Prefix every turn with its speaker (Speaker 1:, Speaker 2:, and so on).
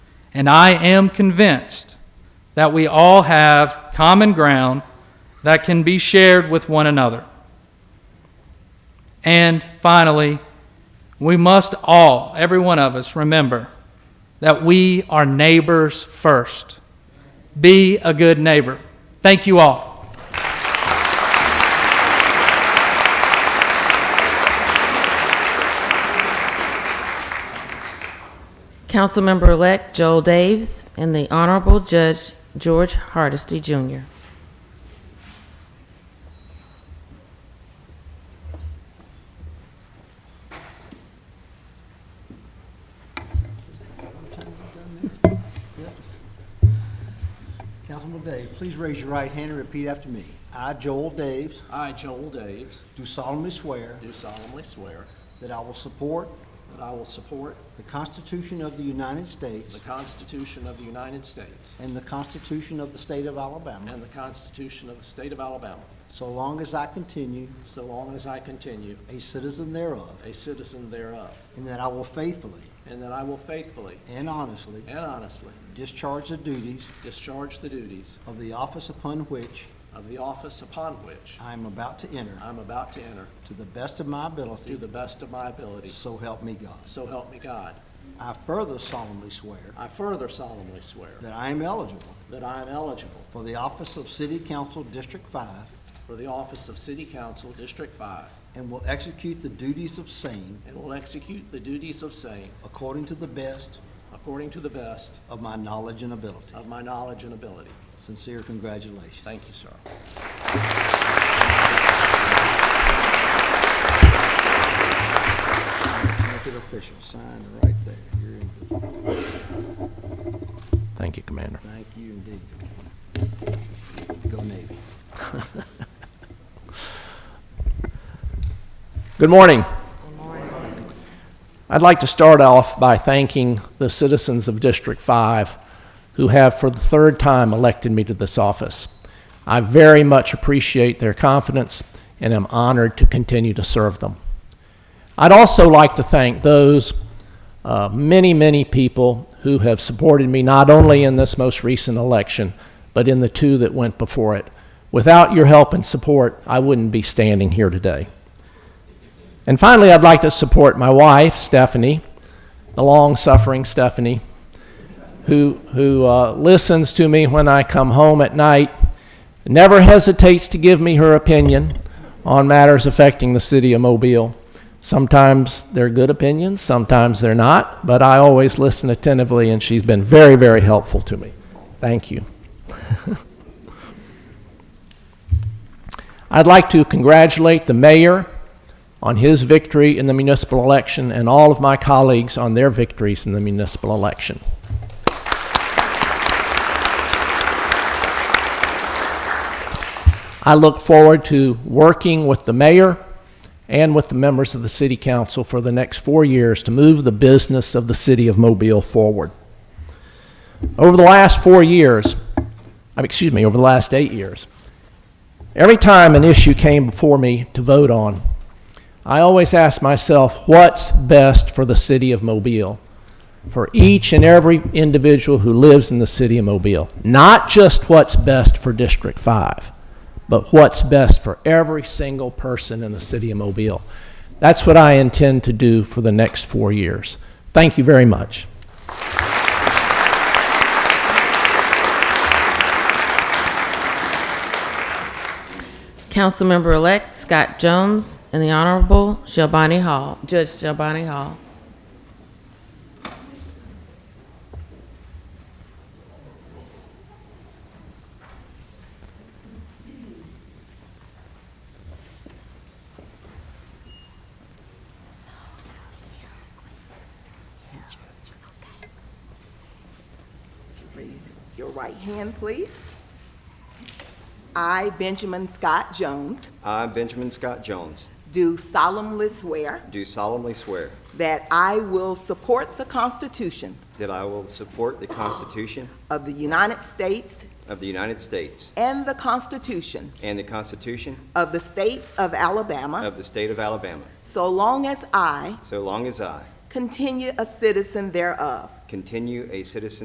Speaker 1: And I am convinced that we all have common ground that can be shared with one another. And finally, we must all, every one of us, remember that we are neighbors first. Be a good neighbor. Thank you all.
Speaker 2: Councilmember-elect Joel Daves and the Honorable Judge George Hardesty Jr.
Speaker 3: Councilman Dave, please raise your right hand and repeat after me. I, Joel Daves,
Speaker 4: I, Joel Daves,
Speaker 3: do solemnly swear
Speaker 4: do solemnly swear
Speaker 3: that I will support
Speaker 4: that I will support
Speaker 3: the Constitution of the United States
Speaker 4: the Constitution of the United States
Speaker 3: and the Constitution of the State of Alabama,
Speaker 4: and the Constitution of the State of Alabama,
Speaker 3: so long as I continue
Speaker 4: so long as I continue
Speaker 3: a citizen thereof,
Speaker 4: a citizen thereof,
Speaker 3: and that I will faithfully
Speaker 4: and that I will faithfully
Speaker 3: and honestly
Speaker 4: and honestly
Speaker 3: discharge the duties
Speaker 4: discharge the duties
Speaker 3: of the office upon which
Speaker 4: of the office upon which
Speaker 3: I am about to enter,
Speaker 4: I am about to enter
Speaker 3: to the best of
Speaker 4: to
Speaker 3: my ability,
Speaker 4: the best of my ability,
Speaker 3: so help me God.
Speaker 4: so help me God.
Speaker 3: I further solemnly swear
Speaker 4: I further solemnly swear
Speaker 3: that I am eligible
Speaker 4: that I am eligible
Speaker 3: for the office of City Council District Five
Speaker 4: for the office of City Council, District 5,
Speaker 3: And will execute the duties of same
Speaker 4: and will execute the duties of same
Speaker 3: according to the best
Speaker 4: according to the best
Speaker 3: of my knowledge and ability.
Speaker 4: of my knowledge and ability.
Speaker 3: Sincere congratulations.
Speaker 4: Thank you, sir.
Speaker 3: Make it official. Sign right there. You're in.
Speaker 4: Thank you, Commander.
Speaker 3: Thank you indeed. Go Navy.
Speaker 5: Good morning. I'd like to start off by thanking the citizens of District 5 who have for the third time elected me to this office. I very much appreciate their confidence and am honored to continue to serve them. I'd also like to thank those uh, many, many people who have supported me not only in this most recent election, but in the two that went before it. Without your help and support, I wouldn't be standing here today. And finally, I'd like to support my wife, Stephanie, the long suffering Stephanie, who, who uh, listens to me when I come home at night, never hesitates to give me her opinion on matters affecting the city of Mobile. Sometimes they're good opinions, sometimes they're not, but I always listen attentively, and she's been very, very helpful to me. Thank you. I'd like to congratulate the mayor on his victory in the municipal election and all of my colleagues on their victories in the municipal election. I look forward to working with the mayor and with the members of the city council for the next four years to move the business of the city of Mobile forward. Over the last four years, I mean, excuse me, over the last eight years, every time an issue came before me to vote on, I always ask myself, what's best for the city of Mobile? For each and every individual who lives in the city of Mobile. Not just what's best for District 5, but what's best for every single person in the city of Mobile. That's what I intend to do for the next four years. Thank you very much.
Speaker 2: Councilmember-elect Scott Jones and the Honorable Shelby Hall, Judge Shelby Hall.
Speaker 6: Raise your right hand, please. I, Benjamin Scott Jones,
Speaker 7: I, Benjamin Scott Jones,
Speaker 6: do solemnly swear
Speaker 7: do solemnly swear
Speaker 6: that I will support the Constitution
Speaker 7: that I will support the Constitution
Speaker 6: of the United States
Speaker 7: of the United States
Speaker 6: and the Constitution
Speaker 7: and the Constitution
Speaker 6: of the State of Alabama
Speaker 7: of the State of Alabama,
Speaker 6: so long as I
Speaker 7: so long as I
Speaker 6: continue a citizen thereof.
Speaker 7: continue a citizen